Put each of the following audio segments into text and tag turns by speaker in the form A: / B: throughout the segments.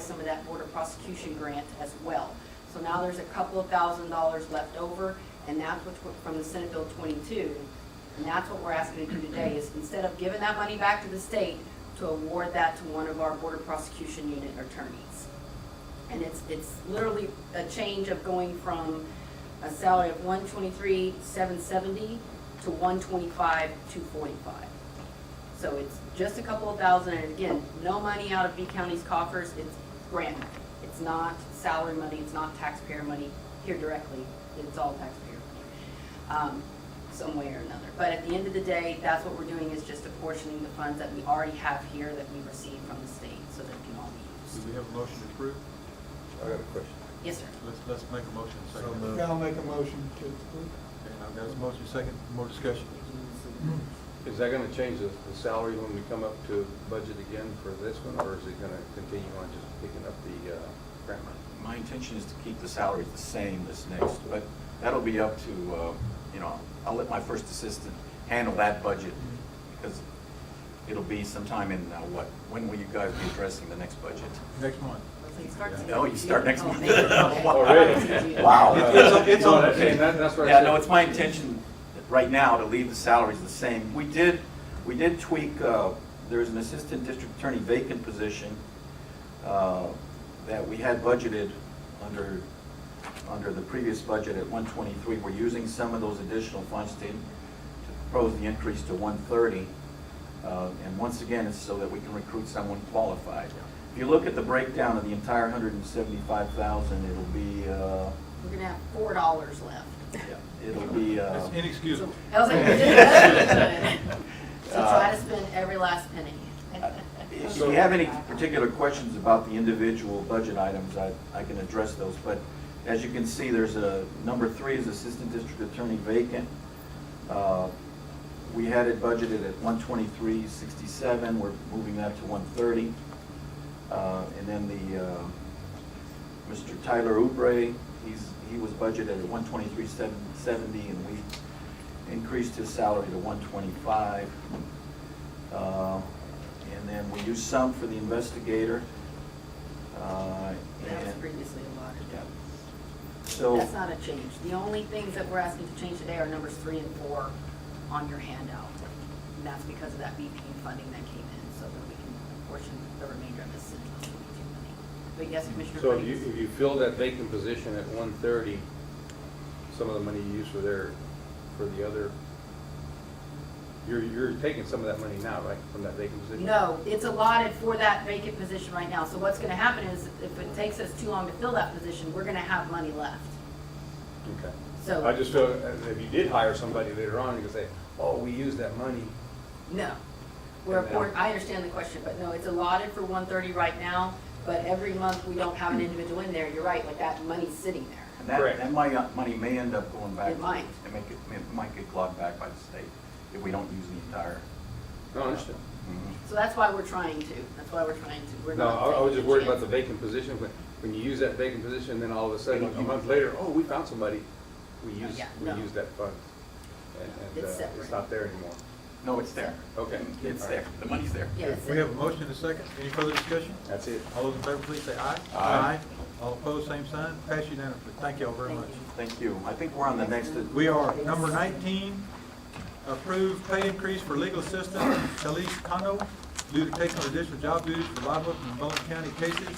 A: some of that border prosecution grant as well. So now there's a couple of thousand dollars left over, and that's what's what- from the Senate Bill 22. And that's what we're asking to do today, is instead of giving that money back to the state, to award that to one of our border prosecution unit attorneys. And it's, it's literally a change of going from a salary of one twenty-three, seven seventy to one twenty-five, two forty-five. So it's just a couple of thousand, and again, no money out of B County's coffers, it's grant. money. It's not salary money, it's not taxpayer money here directly, it's all taxpayer money, um, some way or another. But at the end of the day, that's what we're doing, is just apportioning the funds that we already have here that we received from the state, so that can all be
B: Do
A: used.
B: we have a motion to approve?
C: I got a question.
A: Yes, sir.
B: Let's, let's make a motion
C: So
B: second.
C: moved.
B: Okay,
D: Yeah, I'll make a motion to approve.
B: now there's a motion second, more discussion.
E: Is that gonna change the, the salary when we come up to budget again for this one, or is it gonna continue on just picking up the, uh, grant money?
F: My intention is to keep the salaries the same this next, but that'll be up to, uh, you know, I'll let my first assistant handle that budget because it'll be sometime in, uh, what, when will you guys be addressing the next budget?
B: Next month.
A: Let's see, start
F: Oh, you start next
A: Oh,
F: month.
A: thank you.
E: Oh,
F: Wow.
E: Already?
F: Wow.
B: It's- it's on-
E: No, that's- and that- that's what I
F: Yeah,
E: said.
F: no, it's my intention right now to leave the salaries the same. We did, we did tweak, uh, there's an assistant district attorney vacant position uh, that we had budgeted under, under the previous budget at 123. We're using some of those additional funds to to propose the increase to 130. Uh, And once again, it's so that we can recruit someone qualified. If you look at the breakdown of the entire 175,000, it'll be, uh,
A: We're gonna have four dollars left.
F: it'll be. uh,
B: It's inexcusable.
A: I was like, we did it. So try to spend every last penny.
F: Uh, If you have any particular questions about the individual budget items, I, I can address those. But as you can see, there's a, number three is Assistant District Attorney vacant. Uh, We had it budgeted at one twenty-three sixty-seven, we're moving that to one thirty. And then the, uh, Mr. Tyler Oubre, he's, he was budgeted at one twenty-three seventy, and we increased his salary to one twenty-five. Uh, And then we used some for the investigator. uh,
A: That was
F: and-
A: previously allotted.
F: Yeah. So.
A: That's not a change. The only things that we're asking to change today are numbers three and four on your handout. And that's because of that BP funding that came in, so that we can portion the remainder of this city money. But yes, Commissioner
E: So if you,
A: Frazier?
E: if you fill that vacant position at one thirty, some of the money you use for their, for the other, you're, you're taking some of that money now, right, from that vacant position?
A: No, it's allotted for that vacant position right now. So what's gonna happen is, if it takes us too long to fill that position, we're gonna have money left.
E: Okay.
A: So-
E: I just feel, uh, if you did hire somebody later on, you could say, oh, we used that money.
A: No. We're,
E: And now-
A: we're- I understand the question, but no, it's allotted for one thirty right now, but every month we don't have an individual in there. You're right, like that money's sitting there.
F: And that,
E: Correct.
F: that money, money may end up going back.
A: It might.
F: It may, get- it might get clawed back by the state if we don't use the entire.
E: No, I understand.
F: Mhm.
A: So that's why we're trying to, that's why we're trying to. We're
E: No,
A: not
E: I I was
A: taking
E: just
A: a
E: worried about the
A: chance.
E: vacant position, when, when you use that vacant position, then all of a sudden,
F: don't
E: a
F: use
E: month
F: it.
E: later, oh, we found somebody, we used,
A: yeah,
E: we
A: no.
E: used that fund. And, and
A: It's
E: uh,
A: separate.
E: it's not there anymore.
F: No, it's there.
E: Okay.
F: It's
E: All right.
F: there. The money's there.
A: Yes.
B: We have a motion and a second. Any further discussion?
E: That's it.
B: All those in favor, please say aye.
F: Aye.
B: All opposed, same sign. Pass unanimously. Thank y'all very much.
F: Thank you. I think we're on the next.
B: We are, number nineteen, approved pay increase for legal assistant Talise Kano due to taking on additional job duties for libel and Baldwin County cases.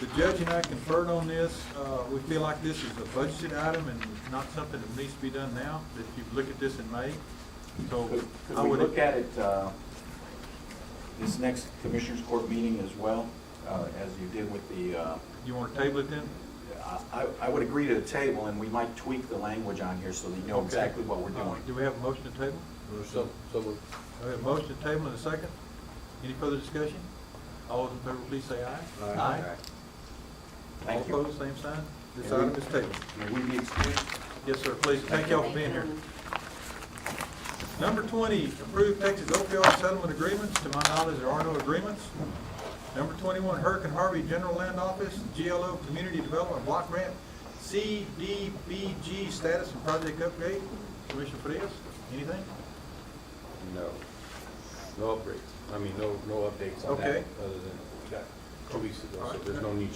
B: The judge and I conferred on this, uh, we feel like this is a budgeted item and not something that needs to be done now, that you look at this in May. So
F: Could could
B: I
F: we
B: would.
F: look at it, uh, this next commissioners court meeting as well, uh, as you did with the, uh,
B: You wanna table it then?
F: I, I- I would agree to the table and we might tweak the language on here so that you know
B: Okay.
F: exactly what we're
B: Uh,
F: doing.
B: Do we have a motion to table?
E: So, so moved.
B: We have a motion to table and a second. Any further discussion? All those in favor, please say aye.
F: Thank
B: All
F: you.
B: opposed, same sign. This
F: And we-
B: item is tabled.
F: May we be excused?
B: Yes, sir, please, thank y'all for being here. Number twenty, approve Texas opioid settlement agreements, to my knowledge, there are no agreements. Number twenty-one, Hurricane Harvey General Land Office, GLO Community Development Block Grant, CDBG status and project update. Commissioner Frias, anything?
E: No. No upgrades. I mean, no, no updates on that.
B: Okay.
E: Other than we got two weeks ago, so there's no need